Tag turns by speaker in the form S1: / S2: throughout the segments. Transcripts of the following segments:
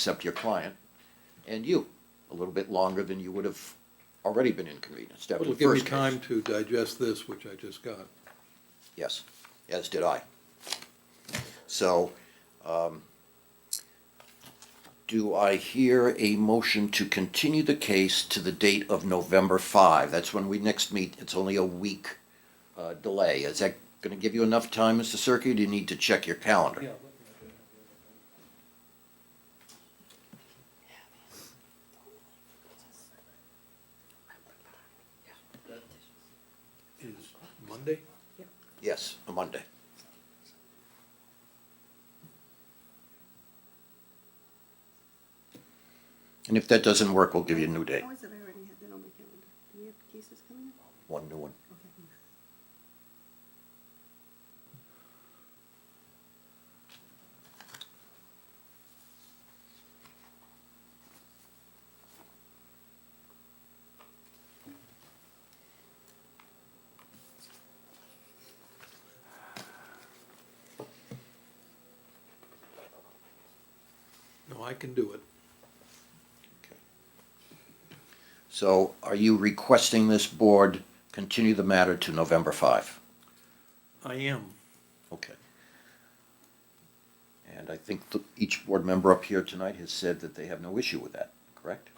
S1: except your client, and you, a little bit longer than you would have already been inconvenienced after
S2: It'll
S1: the
S2: give me
S1: first case.
S2: time to digest this, which I just got.
S1: Yes, as did I. So, um, do I hear a motion to continue the case to the date of November five? That's when we next meet. It's only a week, uh, delay. Is that gonna give you enough time, Mr. Cirque? Do you need to check your calendar?
S2: Is Monday?
S1: Yes, a Monday. And if that doesn't work, we'll give you a new date,
S3: How is it I already had that on my calendar? Do we have cases coming up?
S1: one new one.
S3: Okay.
S2: No, I can do it.
S1: So are you requesting this board continue the matter to November five?
S2: I am.
S1: Okay. And I think th- each board member up here tonight has said that they have no issue with that, correct?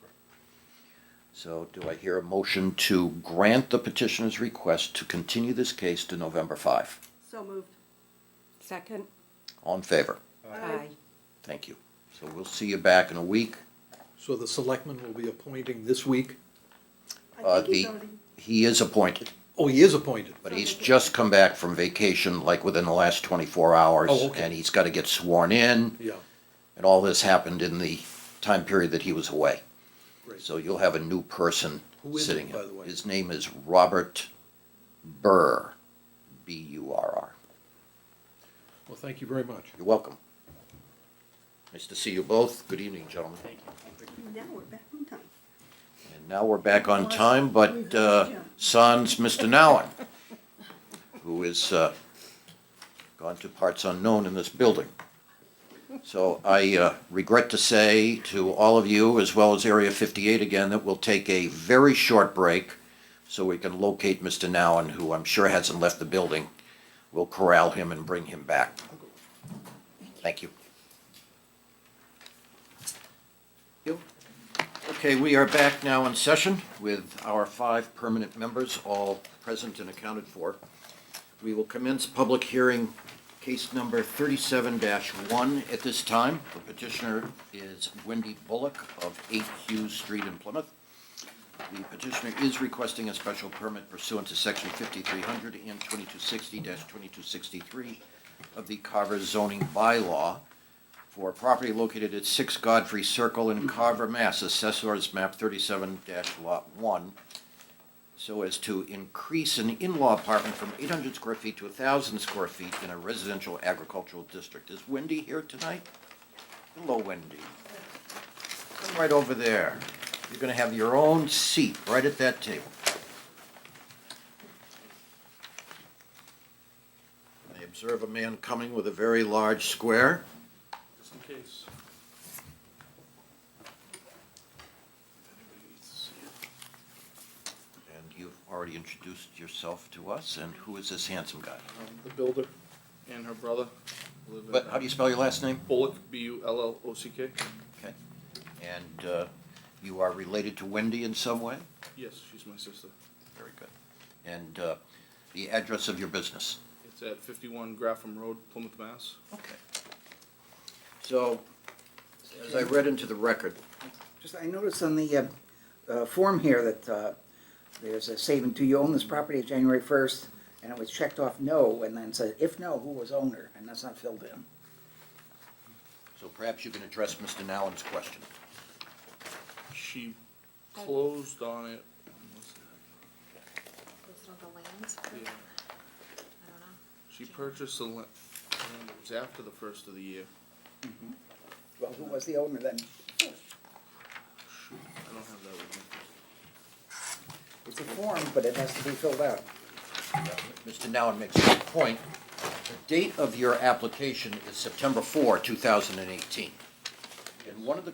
S1: So do I hear a motion to grant the petitioner's request to continue this case to November five?
S3: So moved.
S4: Second?
S1: All in favor?
S3: Aye.
S1: Thank you. So we'll see you back in a week.
S2: So the selectman will be appointing this week?
S3: I
S1: Uh,
S3: think he's
S1: the-
S3: already,
S1: He is appointed,
S2: Oh, he is appointed.
S1: but he's just come back from vacation, like within the last twenty-four hours.
S2: Oh, okay.
S1: And he's gotta get sworn in.
S2: Yeah,
S1: And all this happened in the time period that he was away.
S2: great.
S1: So you'll have a new person
S2: Who is it,
S1: sitting. in.
S2: by the way?
S1: His name is Robert Burr, B U R R.
S2: Well, thank you very much.
S1: You're welcome. Nice to see you both. Good evening, gentlemen. Thank you.
S3: now we're back on time.
S1: And now we're back on time, but
S3: We've-
S1: uh,
S3: yeah.
S1: sans Mr. Nowen, who is uh, gone to parts unknown in this building. So I uh, regret to say to all of you, as well as Area 58 again, that we'll take a very short break so we can locate Mr. Nowen, who I'm sure hasn't left the building. We'll corral him and bring him back. Thank you. Okay, we are back now in session with our five permanent members, all present and accounted for. We will commence public hearing, case number thirty-seven one at this time. The petitioner is Wendy Bullock of Eight Hughes Street in Plymouth. The petitioner is requesting a special permit pursuant to section fifty-three hundred and twenty-two sixty twenty-two sixty-three of the Carver zoning bylaw for a property located at Six Godfrey Circle in Carver, Mass., assessors map thirty-seven lot one, so as to increase an in-law apartment from eight hundred square feet to thousand square feet in a residential agricultural district. Is Wendy here tonight? Hello, Wendy. Come right over there. You're gonna have your own seat right at that table. I observe a man coming with a very large square.
S2: Just in case.
S1: And you've already introduced yourself to us, and who is this handsome guy?
S5: um, the builder and her brother. live in,
S1: But how do you spell your last name?
S5: Bullock, B U L L O C K.
S1: Okay. And uh, you are related to Wendy in some way?
S5: Yes, she's my sister.
S1: Very good. And uh, the address of your business?
S5: It's at fifty-one Graffham Road, Plymouth, Mass.
S1: Okay. So, as I read into the record,
S6: Just, I noticed on the, uh, uh, form here that, uh, there's a statement, do you own this property January first? And it was checked off no, and then said, if no, who was owner? And that's not filled in.
S1: so perhaps you can address Mr. Nowin's question.
S5: She closed on it. when was that?
S7: Based on the lands, I
S5: Yeah.
S7: don't know.
S5: She purchased the la- land, it was after the first of the year.
S6: Well, who was the owner then?
S5: Shoot, I don't have that with me.
S6: It's a form, but it has to be filled out.
S1: Mr. Nowin makes a good point. The date of your application is September 4, 2018. And one of the